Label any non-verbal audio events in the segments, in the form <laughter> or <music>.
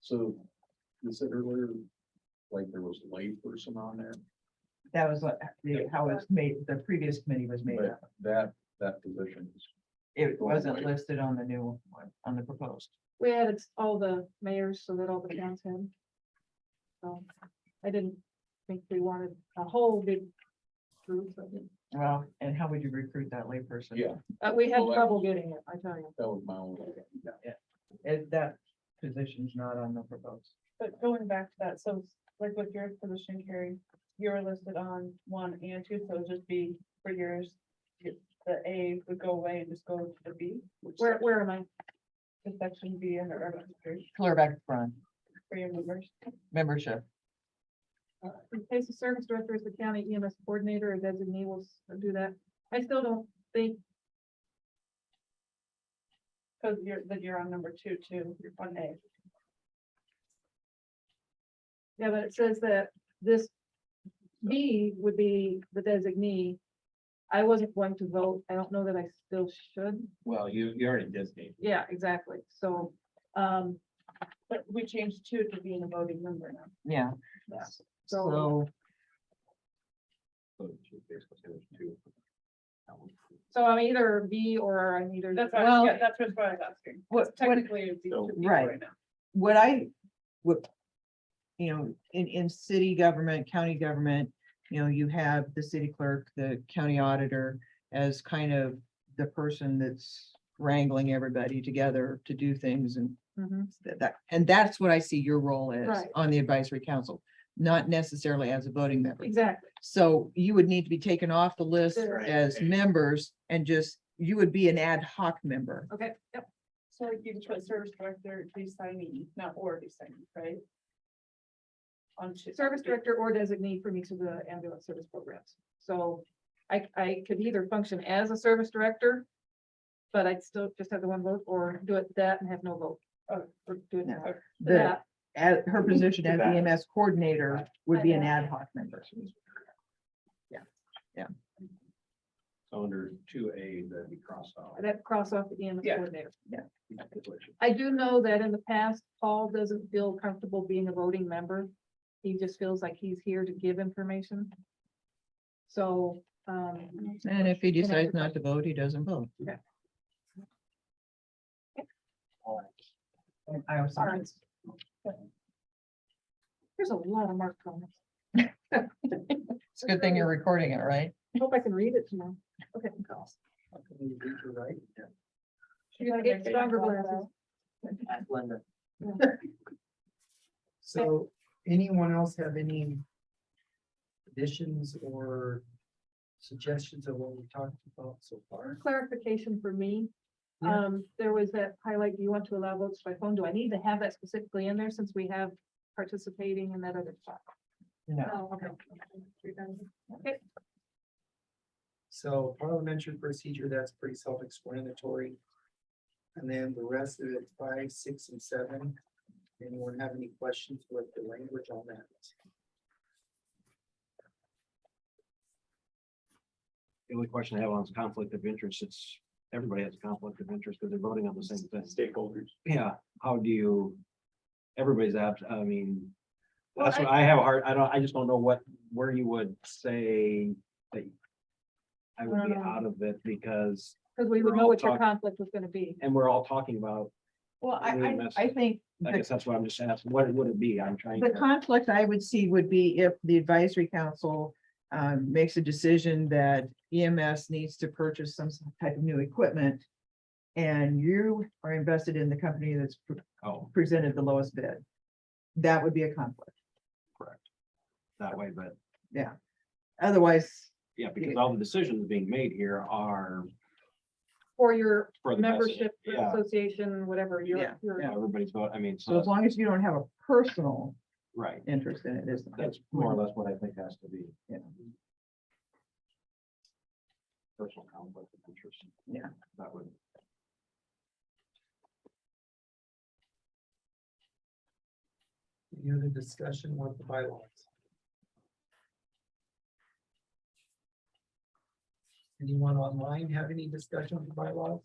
So you said earlier, like there was a layperson on there, That was what, the- how it's made, the previous committee was made but up. that, that position is It wasn't Right. listed on the new one, on the proposed. We added s- all the mayors so that all the towns had. So I didn't think we wanted a whole big group, but Well, and how would you recruit that layperson? Yeah. uh, we had Well, that- trouble getting it, I tell you. That was my only. It- that position's not on the proposed. But going back to that, so like with your position, Carrie, you were listed on one and two, so it'd just be for yours. you- The A would go away and just go to the B, which Where, where am I? is section B under urban history Clear back to front, for your members. membership. Uh, Replace the service director as the county EMS coordinator or designee will s- do that. I still don't think, Cause you're, that you're on number two, too, you're on A. yeah, but it says that this B would be the designee. I wasn't going to vote. I don't know that I still should. Well, you, you already designated. Yeah, exactly. So, um, But we changed two to being a voting member now. Yeah, So- so so you basically said there's two. That was- So I'm either B or I'm either. That's why, Well- yeah, that's what I was asking. what, what, Technically, it'd be So- two people Right. right now. what I, what, you know, in, in city government, county government, you know, you have the city clerk, the county auditor as kind of the person that's wrangling everybody together to do things and Mhm. that- that, and that's what I see your role as Right. on the advisory council, not necessarily as a voting member. Exactly. So you would need to be taken off the list Right. as members and just, you would be an ad hoc member. Okay, yep. So like you can put service director, designee, not or designee, right? On. two- Service director or designee for each of the ambulance service programs. So I, I could either function as a service director, but I'd still just have the one vote or do it that and have no vote. Oh, Or or do it No. that. The, That, at, her position as the EMS coordinator would be an ad hoc member. So under two A, that'd be crossed out. that cross off the EMS Yeah. coordinator. Which- I do know that in the past, Paul doesn't feel comfortable being a voting member. He just feels like he's here to give information. So, um, And if he Can I decides just- not to vote, he doesn't vote. Okay. I was sorry. There's a lot of marked comments. It's a good thing you're recording it, right? I Hope I can read it tomorrow. Okay. You're gonna get stronger glasses. <laughs> So anyone else have any additions or suggestions of what we talked about so far? Clarification for me. Yeah. Um, there was that highlight, do you want to allow votes by phone? Do I need to have that specifically in there since we have participating in that other spot? No. Oh, okay. So parliamentary procedure, that's pretty self-explanatory. And then the rest of it, five, six, and seven. Anyone have any questions with the language on that? The only question I have on is conflict of interest. It's, everybody has a conflict of interest because they're voting on the same thing. Stakeholders. Yeah, how do you? Everybody's abs, I mean, Well, that's what I have a hard, I don't, I just don't know what, where you would say that. I would be Um. out of it because, Because we We're would know all what your talking- conflict was gonna be. and we're all talking about, Well, I- I- I think. I guess that's what I'm just asking, what would it be? I'm trying. The to- conflict I would see would be if the advisory council um, makes a decision that EMS needs to purchase some type of new equipment. And you are invested in the company that's pre- Oh, presented the lowest bid. That would be a conflict. that way, but Otherwise, yeah, because all the decisions being made here are Or your for the. best of- membership Yeah, association, whatever, Yeah, your, your yeah, everybody's vote, I mean, so so, as long as you don't have a personal right, interest in it, it's. that's more or less what I think has to be. Yeah. Personal conflict of interest. Yeah. That would. Any other discussion with the bylaws? Anyone online have any discussion with the bylaws?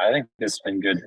I think this has been good.